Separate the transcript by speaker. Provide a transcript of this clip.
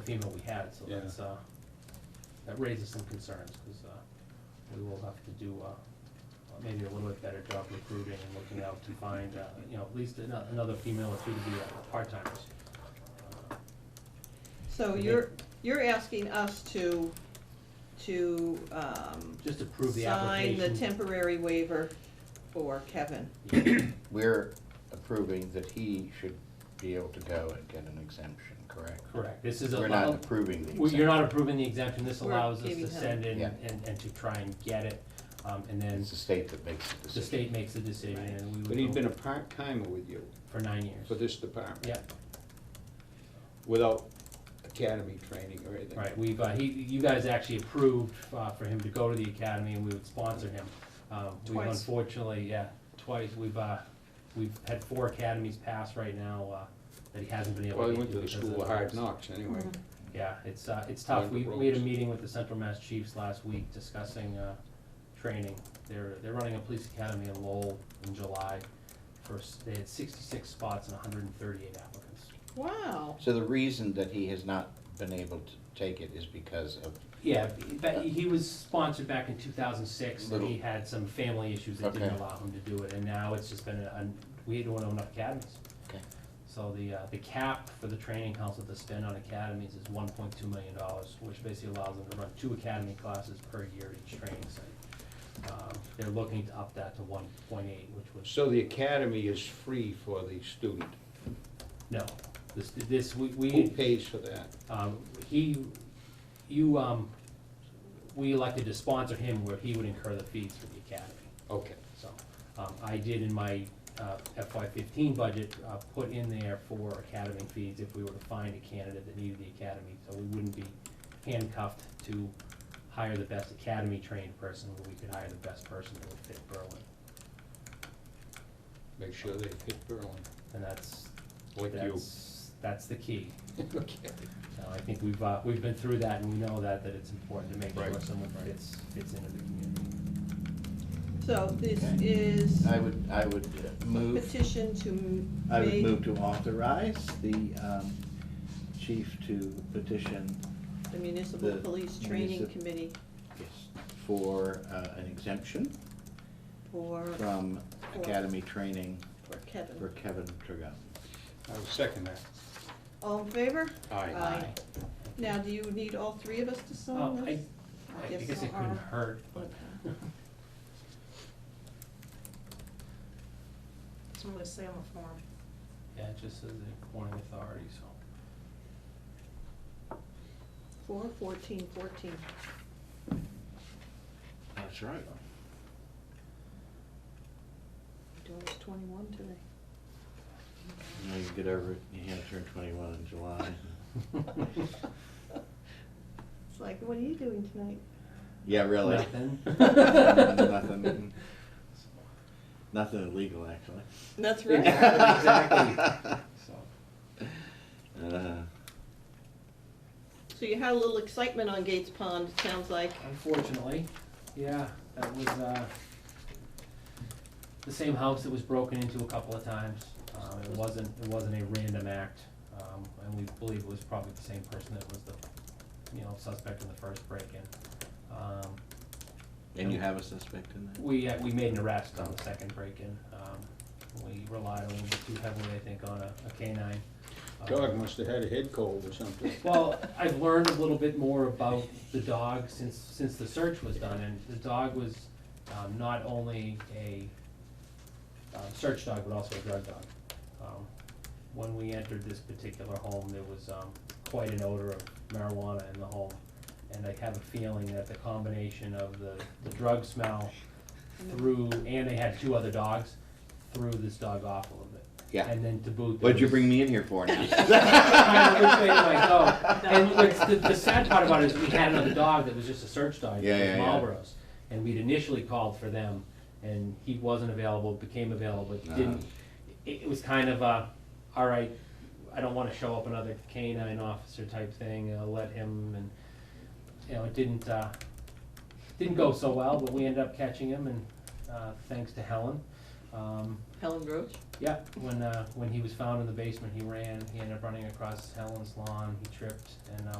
Speaker 1: FEMA we had, so
Speaker 2: Yeah.
Speaker 1: that's, uh, that raises some concerns, because, uh, we will have to do, uh, uh, maybe a little bit better job recruiting and looking out to find, uh, you know, at least ano- another female or two to be uh, part-timers. Uh,
Speaker 3: So
Speaker 1: Mhm.
Speaker 3: you're, you're asking us to, to, um,
Speaker 1: Just approve the
Speaker 3: sign
Speaker 1: application.
Speaker 3: the temporary waiver for Kevin.
Speaker 4: We're approving that he should be able to go and get an exemption, correct?
Speaker 1: Correct, this is a.
Speaker 4: We're not approving the
Speaker 1: Well,
Speaker 4: exemption.
Speaker 1: You're not approving the exemption, this
Speaker 3: We're
Speaker 1: allows us
Speaker 3: giving
Speaker 1: to
Speaker 3: him-
Speaker 1: send in
Speaker 4: Yeah.
Speaker 1: and, and to try and get it, um, and then
Speaker 4: It's the state that makes the
Speaker 1: the
Speaker 4: decision.
Speaker 1: state makes the decision, and we would.
Speaker 2: But he'd
Speaker 1: go
Speaker 2: been a part-timer with you
Speaker 1: For nine years.
Speaker 2: for this department.
Speaker 1: Yeah,
Speaker 2: Without academy training or anything.
Speaker 1: right, we've, uh, he, you guys actually approved, uh, for him to go to the academy, and we would sponsor him. Um, we've
Speaker 3: Twice.
Speaker 1: Unfortunately, yeah, twice, we've, uh, we've had four academies pass right now, uh, that he hasn't been able to
Speaker 2: Well, he
Speaker 1: get
Speaker 2: went to the
Speaker 1: because of
Speaker 2: school of hard
Speaker 1: roads.
Speaker 2: knocks anyway.
Speaker 1: Yeah, it's, uh, it's tough.
Speaker 2: Learned
Speaker 1: We,
Speaker 2: the
Speaker 1: we had a
Speaker 2: ropes.
Speaker 1: meeting with the Central Mass Chiefs last week discussing, uh, training. They're, they're running a police academy in Lowell in July. First, they had sixty-six spots and hundred and thirty-eight applicants.
Speaker 3: Wow,
Speaker 4: So the reason that he has not been able to take it is because of,
Speaker 1: Yeah, but he was sponsored back in two thousand six, and he
Speaker 4: Little-
Speaker 1: had some family issues that didn't
Speaker 4: Okay.
Speaker 1: allow him to do it, and now it's just been, a- we don't own enough academies.
Speaker 4: Okay.
Speaker 1: So the, uh, the cap for the training council to spend on academies is one point two million dollars, which basically allows them to run two academy classes per year at each training site. Um, They're looking to up that to one point eight, which was,
Speaker 2: So the academy is free for the student.
Speaker 1: no, this, this, we, we.
Speaker 2: Who pays for that?
Speaker 1: Um, He, you, um, we elected to sponsor him where he would incur the fees for the academy.
Speaker 2: Okay.
Speaker 1: So um, I did in my uh, FY fifteen budget, uh, put in there for academy fees if we were to find a candidate that needed the academy. So we wouldn't be handcuffed to hire the best academy trained person, but we could hire the best person that would fit Berlin.
Speaker 2: Make sure they hit Berlin,
Speaker 1: And that's,
Speaker 2: like you.
Speaker 1: that's, that's the key.
Speaker 2: Okay.
Speaker 1: So I think we've, uh, we've been through that and we know that, that it's important to make sure
Speaker 2: Right.
Speaker 1: someone fits, fits into the community.
Speaker 3: so this
Speaker 5: Okay.
Speaker 3: is
Speaker 4: I would, I would move,
Speaker 3: petition to
Speaker 5: I would
Speaker 3: make-
Speaker 5: move to authorize the um, chief to petition
Speaker 3: The municipal
Speaker 5: the
Speaker 3: police training
Speaker 5: municip-
Speaker 3: committee
Speaker 5: for uh, an exemption
Speaker 3: for,
Speaker 5: from academy training
Speaker 3: for
Speaker 5: for
Speaker 3: Kevin.
Speaker 5: Kevin Trigot.
Speaker 2: I'll second that.
Speaker 3: All in favor?
Speaker 2: Aye.
Speaker 3: Aye. Now, do you need all three of us to
Speaker 1: Oh,
Speaker 3: sign
Speaker 1: I,
Speaker 3: this?
Speaker 1: I
Speaker 3: Yes,
Speaker 1: guess it
Speaker 3: uh-uh.
Speaker 1: couldn't hurt, but.
Speaker 3: Okay.
Speaker 6: It's what it say on the form.
Speaker 1: Yeah, it just says the Corning Authority, so.
Speaker 3: Four, fourteen, fourteen.
Speaker 5: That's right.
Speaker 3: Doing it twenty-one today.
Speaker 5: Now you can get over it, you have to turn twenty-one in July.
Speaker 3: It's like, what are you doing tonight?
Speaker 5: Yeah, really.
Speaker 1: Nothing.
Speaker 5: Nothing. Nothing illegal, actually.
Speaker 3: That's
Speaker 1: Exactly. So,
Speaker 5: Uh,
Speaker 3: So you had a little excitement on Gates Pond, it sounds like.
Speaker 1: Unfortunately, yeah, that was, uh, the same house that was broken into a couple of times. Um, it wasn't, it wasn't a random act, um, and we believe it was probably the same person that was the, you know, suspect in the first break-in. Um,
Speaker 5: And you have a suspect in there?
Speaker 1: We, uh, we made an arrest on the second break-in. Um, We relied a little bit too heavily, I think, on a a canine. Um,
Speaker 2: Dog must have had a head cold or something.
Speaker 1: Well, I've learned a little bit more about the dog since, since the search was done, and the dog was um, not only a um, search dog, but also a drug dog. Um, When we entered this particular home, there was um, quite an odor of marijuana in the home, and I have a feeling that the combination of the, the drug smell through, and they had two other dogs, threw this dog off a little bit.
Speaker 4: yeah.
Speaker 1: And then to boot. there
Speaker 5: What'd you
Speaker 1: was-
Speaker 5: bring me in here for now?
Speaker 1: kind of which way do I go? And what's the, the sad part about it is we had another dog that was just a search dog,
Speaker 5: Yeah, yeah,
Speaker 1: it
Speaker 5: yeah.
Speaker 1: was Marlboro's. And we'd initially called for them, and he wasn't available, became available,
Speaker 5: Uh-huh.
Speaker 1: but didn't. It, it was kind of a, all right, I don't want to show up another canine officer type thing, uh, let him, and, you know, it didn't, uh, didn't go so well, but we ended up catching him, and, uh, thanks to Helen. Um,
Speaker 3: Helen Roach?
Speaker 1: yeah, when, uh, when he was found in the basement, he ran, he ended up running across Helen's lawn, he tripped, and, uh,